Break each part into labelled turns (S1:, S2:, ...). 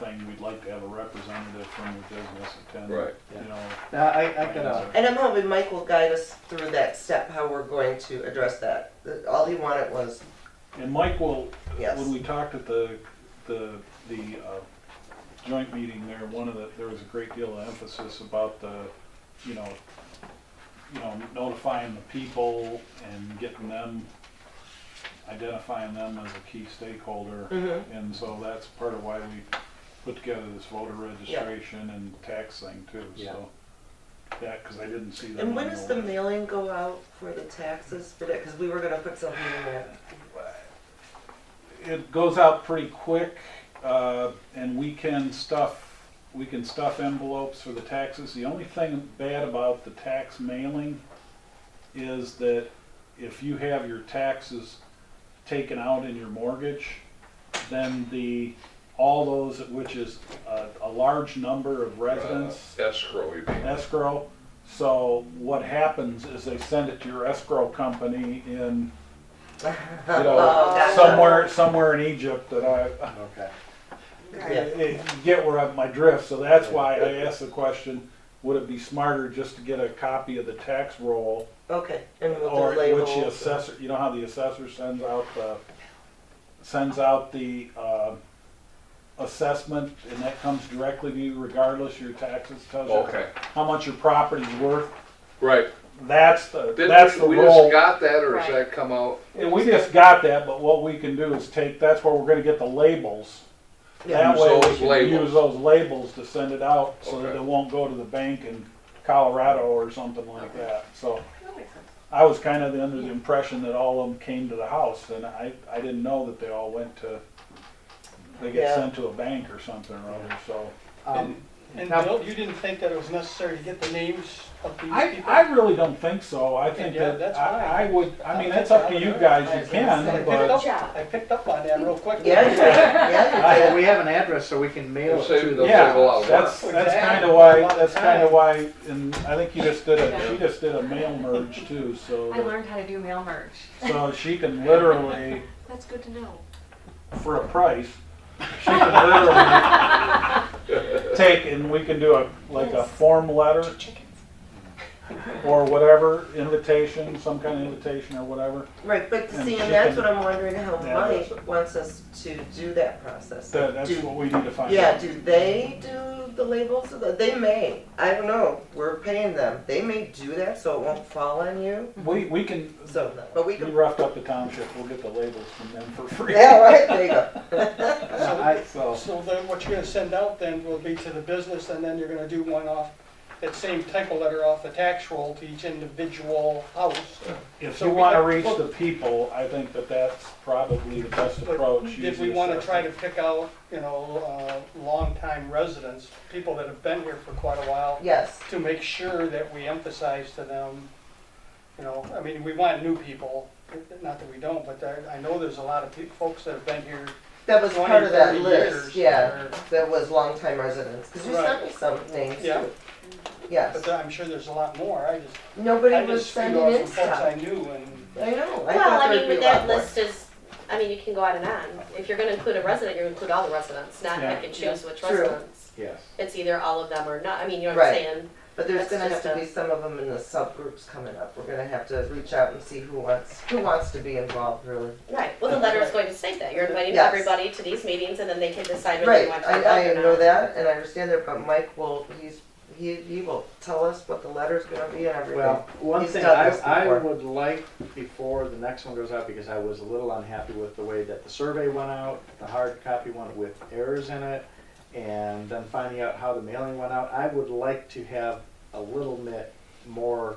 S1: thing, we'd like to have a representative from the business attend.
S2: Right.
S1: You know. uh,
S3: Now, I, I uh, got a,
S4: And I'm hoping Mike will guide us through that step, how we're going to address that. All he wanted was,
S1: And Mike will,
S4: Yes.
S1: when we talked at the, the, the uh, joint meeting there, one of the, there was a great deal of emphasis about the, you know, you know, notifying the people and getting them, identifying them as a key stakeholder.
S4: Mhm.
S1: And so that's part of why we put together this voter registration and tax thing too,
S3: Yeah.
S1: so. That, because I didn't see that.
S4: and
S1: on
S4: when does the
S1: list.
S4: mailing go out for the taxes for that? Because we were gonna put something in there.
S1: it goes out pretty quick, uh, and we can stuff, we can stuff envelopes for the taxes. The only thing bad about the tax mailing is that if you have your taxes taken out in your mortgage, then the, all those, which is a, a large number of residents,
S2: Uh, Escrow, you mean?
S1: escrow. So what happens is they send it to your escrow company in, you know,
S4: Oh, gotcha.
S1: somewhere, somewhere in Egypt that I,
S3: okay.
S4: Yeah.
S1: you get where I'm, my drift. So that's why I asked the question, would it be smarter just to get a copy of the tax roll?
S4: Okay, and we'll
S1: Or
S4: do
S1: which the
S4: labels.
S1: assessor, you know how the assessor sends out the, sends out the, uh, assessment and that comes directly to you regardless your taxes, tells you
S2: Okay,
S1: how much your property's worth.
S2: right.
S1: That's the,
S2: Didn't
S1: that's the
S2: we- We just
S1: role.
S2: got that, or does
S5: Right.
S2: that come out?
S1: And we just got that, but what we can do is take, that's where we're gonna get the labels.
S4: Yeah.
S1: That way
S2: Use those
S1: we can
S2: labels.
S1: use those labels to send it out so that
S2: Okay.
S1: it won't go to the bank in Colorado or something like
S2: Okay.
S1: that. So
S5: That makes sense.
S1: I was kind of under the impression that all of them came to the house and I, I didn't know that they all went to, they get
S4: Yeah.
S1: sent to a bank or something or other, so.
S3: Um,
S6: And
S3: Now-
S6: Bill, you didn't think that it was necessary to get the names of these
S1: I,
S6: people?
S1: I really don't think so. I think
S6: Yeah,
S1: that,
S6: that's
S1: I, I would, I mean,
S6: I
S1: that's up to
S6: think
S1: you
S6: that-
S1: guys,
S6: I
S1: you
S6: was
S1: can,
S6: I picked
S1: but.
S6: up-
S5: job.
S6: I picked up on that real quick.
S4: Yeah, you did. yeah, you
S3: Well,
S4: did.
S3: we have an address, so we can mail it
S2: It'll save
S3: to
S2: the-
S3: them.
S2: Yeah. a lot
S1: Yeah,
S2: of
S1: that's,
S6: work.
S1: that's
S6: Exactly.
S1: kind of why,
S6: A lot of
S1: that's kind of
S6: time.
S1: why, and I think you just did a,
S5: Yeah.
S1: she just did a mail merge too,
S5: I
S1: so,
S5: learned how to do mail merge.
S1: so she can literally,
S5: That's good to know.
S1: for a price, she can literally take, and we can do a, like a form letter
S5: Chickens.
S1: or whatever, invitation, some kind of invitation or whatever,
S4: Right, but
S1: And
S4: see,
S1: chicken.
S4: and that's what I'm wondering how
S1: Yeah,
S4: Mike
S1: that's-
S4: wants us to do that process.
S1: that, that's
S4: Do-
S1: what we need to find
S4: Yeah,
S1: out.
S4: do they do the labels? of the- They may, I don't know, we're paying them. They may do that so it won't fall on you,
S1: We, we can,
S4: so, but we
S1: we
S4: can.
S1: roughed up the township, we'll get the labels from them for free.
S4: Yeah, right, there you go.
S3: I-
S1: So,
S6: So then what you're gonna send out then will be to the business and then you're gonna do one off, that same type of letter off the tax roll to each individual house.
S1: if
S6: So
S1: you
S6: we
S1: want to
S6: have-
S1: reach the people, I think that that's probably the best
S6: But
S1: approach.
S6: If we
S1: easiest
S6: wanna try
S1: approach.
S6: to pick out, you know, uh, longtime residents, people that have been here for quite a while,
S4: Yes,
S6: to make sure that we emphasize to them, you know, I mean, we want new people, not that we don't, but there, I know there's a lot of peop folks that have been here
S4: that was
S6: twenty,
S4: part of that
S6: thirty years.
S4: list, yeah,
S6: or-
S4: that was longtime residents, because you sent me some names
S6: Yeah.
S4: too. Yes,
S6: But there- I'm sure there's a lot more, I just,
S4: nobody
S6: I
S4: was
S6: just figured
S4: sending in
S6: out some folks I
S4: stuff.
S6: knew and.
S4: I know, I
S5: Well,
S4: thought
S5: I
S4: there'd
S5: mean,
S4: be a
S5: with
S4: lot
S5: that
S4: more.
S5: list is, I mean, you can go on and on. If you're gonna include a resident, you're gonna include all the residents, not
S1: Yeah.
S5: pick and choose which
S4: True.
S5: residents.
S3: Yes.
S5: It's either all of them or not, I mean, you know what I'm
S4: Right.
S5: saying?
S4: But there's
S5: That's
S4: gonna have
S5: just
S4: to
S5: a-
S4: be some of them in the subgroups coming up. We're gonna have to reach out and see who wants, who wants to be involved really.
S5: Right, well, the letter is going to state that, you're inviting
S4: Yes.
S5: everybody to these meetings and then they can decide whether
S4: Right,
S5: they want to.
S4: I,
S5: vote or
S4: I know
S5: not.
S4: that and I understand that, but Mike will, he's, he, he will tell us what the letter's gonna be and everything.
S3: Well, one
S4: He's
S3: thing
S4: done
S3: I,
S4: this
S3: I
S4: before.
S3: would like before the next one goes out, because I was a little unhappy with the way that the survey went out, the hard copy one with errors in it, and then finding out how the mailing went out, I would like to have a little bit more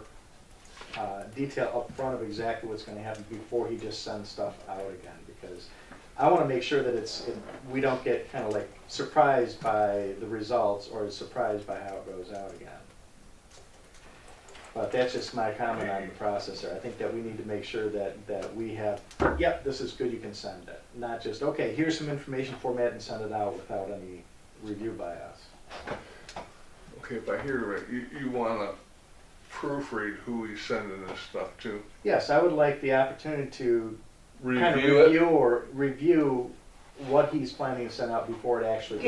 S3: uh, detail up front of exactly what's gonna happen before he just sends stuff out again, because I wanna make sure that it's, it- we don't get kinda like surprised by the results or surprised by how it goes out again. But that's just my comment on the processor. I think that we need to make sure that, that we have, yep, this is good, you can send it. Not just, okay, here's some information format and send it out without any review by us.
S2: Okay, if I hear you right, you, you wanna proofread who he's sending this stuff to?
S3: Yes, I would like the opportunity to kind of
S2: Review it?
S3: review or review what he's planning to send out before it actually